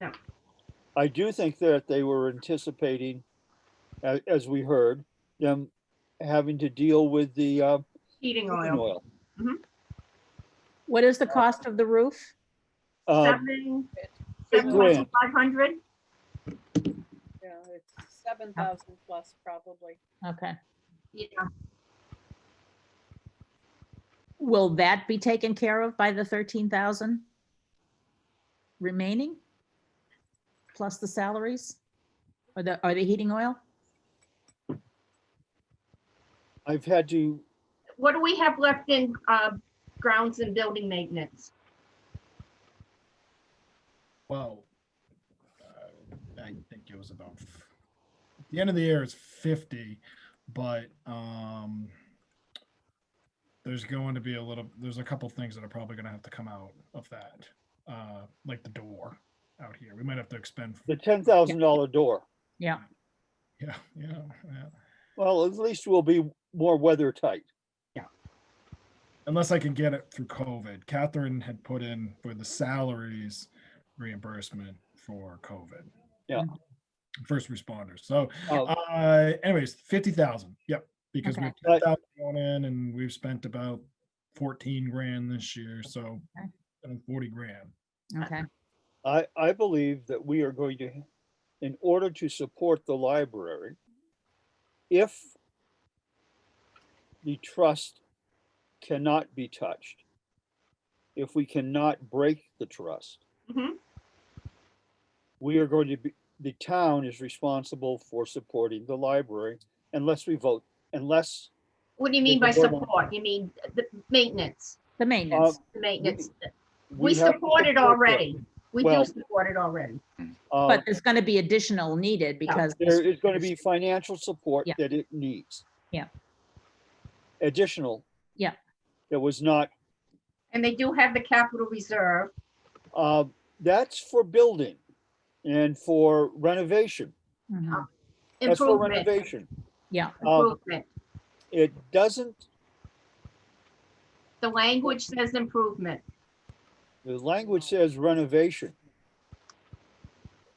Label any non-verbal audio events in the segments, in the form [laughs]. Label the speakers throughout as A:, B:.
A: No.
B: I do think that they were anticipating, as, as we heard, them having to deal with the, uh,
A: heating
B: cooking
A: oil.
B: oil.
C: What is the cost of the roof?
B: Um,
A: Seven,
B: Big
A: seven thousand
B: grant.
A: five hundred?
D: Yeah, it's seven thousand plus probably.
C: Okay.
A: Yeah,
C: Will that be taken care of by the thirteen thousand remaining? Plus the salaries? Or the, or the heating oil?
B: I've had to,
A: what do we have left in, uh, grounds and building maintenance?
E: Well, uh, I think it was about f- the end of the year is fifty, but um, there's going to be a little. There's a couple things that are probably going to have to come out of that, uh, like the door out here. We might have to expend.
B: the ten thousand dollar door.
C: Yeah,
E: Yeah, yeah, yeah.
B: Well, at least we'll be more weather tight.
E: unless I can get it through COVID. Catherine had put in for the salaries reimbursement for COVID.
B: Yeah.
E: First responders. So,
B: Oh.
E: uh, anyways, fifty thousand. Yep, because
C: Okay.
E: we've ten thousand going in, and we've spent about fourteen grand this year. So,
C: Okay.
E: uh, forty grand.
C: okay.
B: I, I believe that we are going to, in order to support the library, if the trust cannot be touched, if we cannot break the trust,
A: Mhm.
B: we are going to be, the town is responsible for supporting the library unless we vote, unless
A: What do you mean by
B: Big grant.
A: support? You mean the maintenance,
C: The maintenance.
A: the maintenance?
B: uh, we
A: We
B: have. to
A: support it
B: support them.
A: already. We do
B: Well-
A: support it already.
B: Uh,
C: But there's going to be additional needed because.
B: There is going to be financial support
C: Yeah.
B: that it needs.
C: Yeah.
B: Additional.
C: Yeah.
B: That was not,
A: And they do have the capital reserve.
B: uh, that's for building and for renovation.
C: Mhm.
B: That's for
A: Improvement,
B: renovation.
C: Yeah,
B: Um,
A: improvement.
B: it doesn't,
A: The language says improvement.
B: the language says renovation.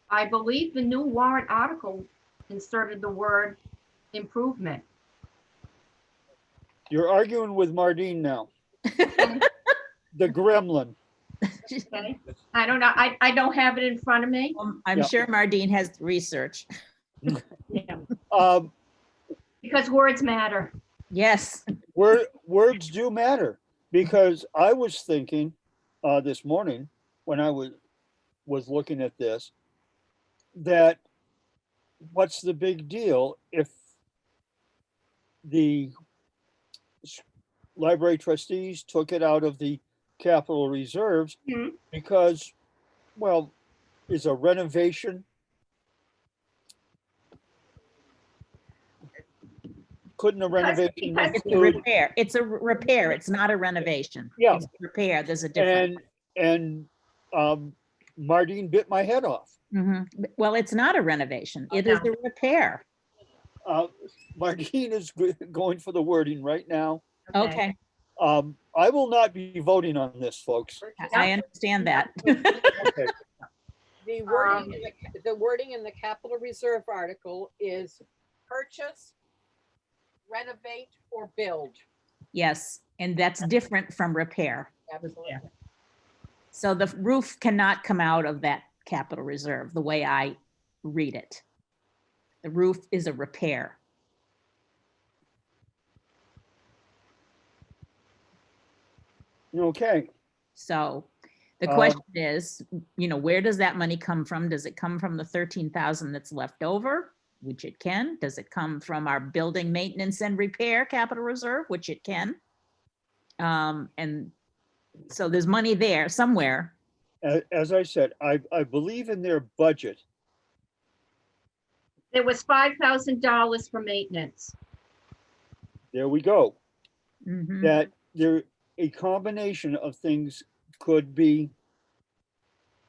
A: I believe the new warrant article inserted the word improvement.
B: You're arguing with Mardine
C: [laughs]
B: now. The gremlin.
A: Okay, I don't know, I, I don't have it in front of me.
C: Um, I'm
B: Yeah.
C: sure Mardine has research.
B: Um,
A: Because words matter.
C: Yes.
B: Word, words do matter because I was thinking uh, this morning when I was was looking at this that what's the big deal if the s- library trustees took it out of the capital reserves
A: Mhm.
B: because well is a renovation couldn't a renovation
A: because
C: It's a
B: include-
C: repair. It's a r- repair. It's not a renovation.
B: Yeah.
C: It's a Repair, there's a difference.
B: and and um Mardine bit my head off.
C: Mhm. Well, it's not a renovation.
A: Oh,
C: It is a repair.
B: Uh, Mardine is go- going for the wording right now.
C: Okay,
B: Um, I will not be voting on this, folks.
C: I- I understand that.
B: Okay. [laughs]
D: The
A: Um,
D: wording, in the ca- the wording in the capital reserve article is purchase, renovate, or build.
C: Yes, and that's different from repair.
D: Absolutely.
C: So the roof cannot come out of that capital reserve, the way I read it. The roof is a repair.
B: Okay,
C: So the
B: Um,
C: question is, you know, where does that money come from? Does it come from the thirteen thousand that's left over? Which it can. Does it come from our building maintenance and repair capital reserve, which it can? Um, and so there's money there somewhere.
B: as, as I said, I, I believe in their budget.
A: There was five thousand dollars for maintenance.
B: There we go.
C: Mhm.
B: That there, a combination of things could be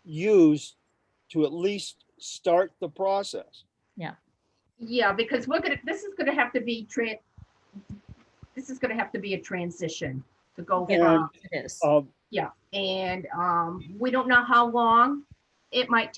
B: used to at least start the process.
A: Yeah, because we're gonna, this is gonna have to be tran, this is gonna have to be a transition to go
C: Yeah.
A: from,
C: It is.
B: Um,
A: and, um, we don't know how long it might